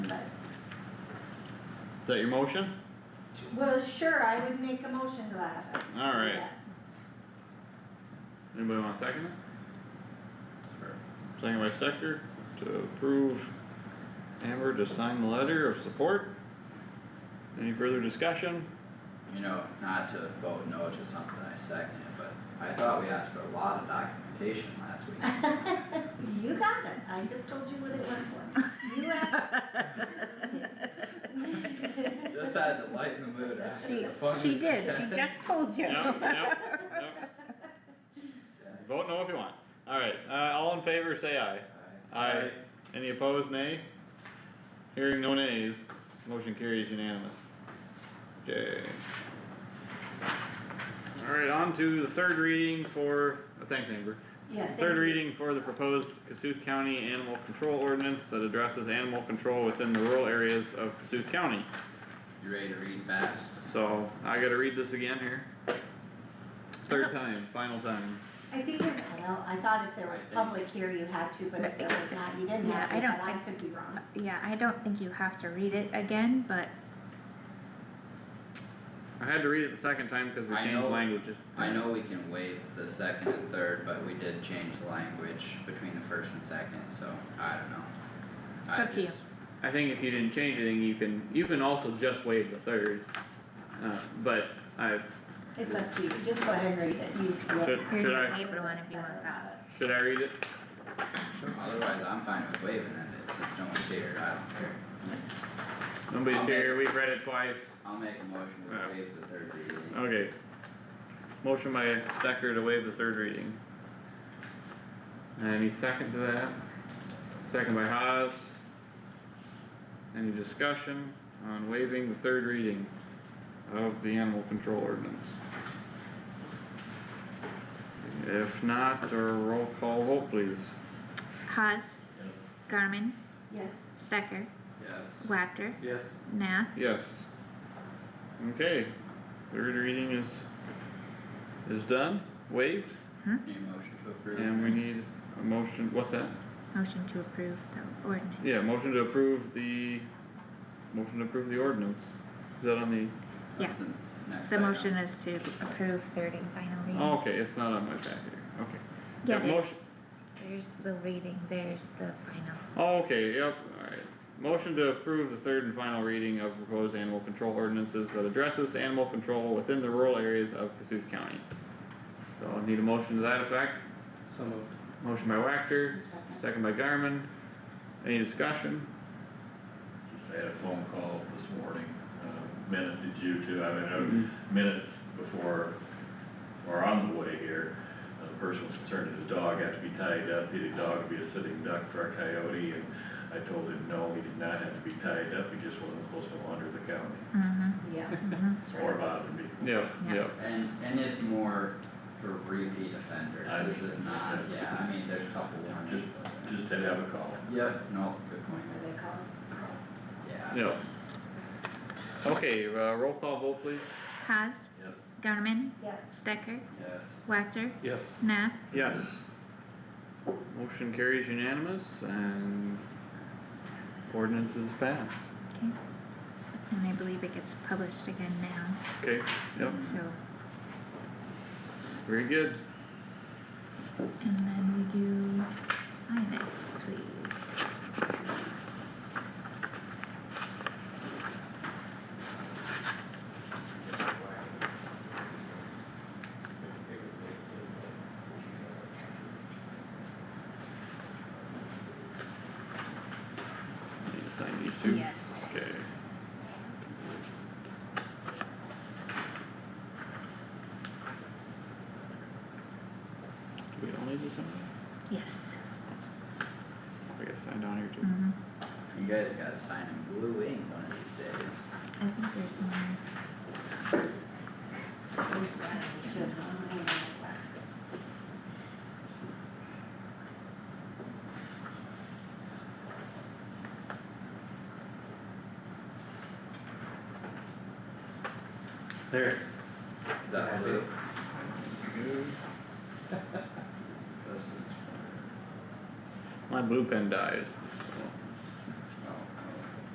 Is that your motion? Well, sure, I would make a motion to that effect. Alright, Yeah. anybody wanna second it? Second by Stecker, to approve Amber to sign the letter of support. Any further discussion? You know, not to vote no to something, I second it, but I thought we asked for a lot of documentation last week. You got it, I just told you what it went for. You asked. Just had to lighten the mood after She, the fun. she we did, had. she just told you. Yep, yep, yep, Okay, vote no if you want. Alright, uh, all in favor, say aye. alright. Aye. Any opposed, nay? Hearing no nays, motion carries unanimous. Okay. Alright, on to the third reading for, oh, thanks Amber. Yes. Third reading for the proposed Cassuth County Animal Control Ordinance that addresses animal control within the rural areas of Cassuth County. You ready to read fast? So, I gotta read this again here. Third time, final time. I think, if- well, I thought if there was public here, you had to, but if there was not, you didn't have Yeah, I to, don't but I think- could be wrong. Yeah, I don't think you have to read it again, but I had to read it the second time because we I changed know. languages. I know we can waive the second and third, but we did change the language between the first and second, so I don't know. It's I up to you. just- I think if you didn't change anything, you can, you can also just waive the third. Uh, but I, It's up to you, just go ahead and read it, you. should, here's should the I, paper one if you want that. should I read it? Otherwise, I'm fine with waiving it, it's just no one's here, I don't care. Nobody's here, we've read it twice. I'll make a motion Yeah. to waive the third reading. Okay. Motion by Stecker to waive the third reading. Any second to that? Second by Haas. Any discussion on waiving the third reading of the animal control ordinance? If not, a roll call vote please. Haas, Garmin, Yes. Stecker, Yes. Wactor, Yes. Nath, Yes. Okay, third reading is, is done, waived, Need a motion to approve? and we need a motion, what's that? motion to approve the ordinance. Yeah, motion to approve the, motion to approve the ordinance. Is that on the, That's the next The item. motion is to approve third and final oh, reading. okay, it's not on my packet here, okay. Yeah, Yep, it is. motion- There's the reading, there's the final. Oh, okay, yep, alright. Motion to approve the third and final reading of proposed animal control ordinances that addresses animal control within the rural areas of Cassuth County. So I need a motion to that effect. So moved. Motion by Wactor, Second. second by Garmin. Any discussion? Just had a phone call this morning, uh, minute, did you too, I mean, uh, minutes before, or on the way here. uh, The person was concerned that his dog had to be tied up, did a dog be a sitting duck for a coyote? And I told him, no, he did not have to be tied up, he just wasn't supposed to wander the county Mm-hmm, Yeah. mm-hmm, or bother me. Yep, Yeah. yep. And, and it's more for repeat offenders, I this is not, understand. yeah, I mean, there's a couple warnings. but- Just had to have a call. Yep, no, good point, What do they call us? yeah. Yep. Okay, uh, roll call vote please. Haas, Yes. Garmin, Yes. Stecker, Yes, Wactor, Yes. Nath, Yes. Motion carries unanimous and ordinance is passed. and I believe it gets published again now, Okay, yep, so, very good. and then will you sign it, please? Need to sign these two? Yes. Okay. Do we all need to sign Yes. this? I guess sign down here too. Mm-hmm. you guys gotta sign in blue ink one of these days. I think there's one. Should, huh? There. Is that blue? My blue pen died. oh,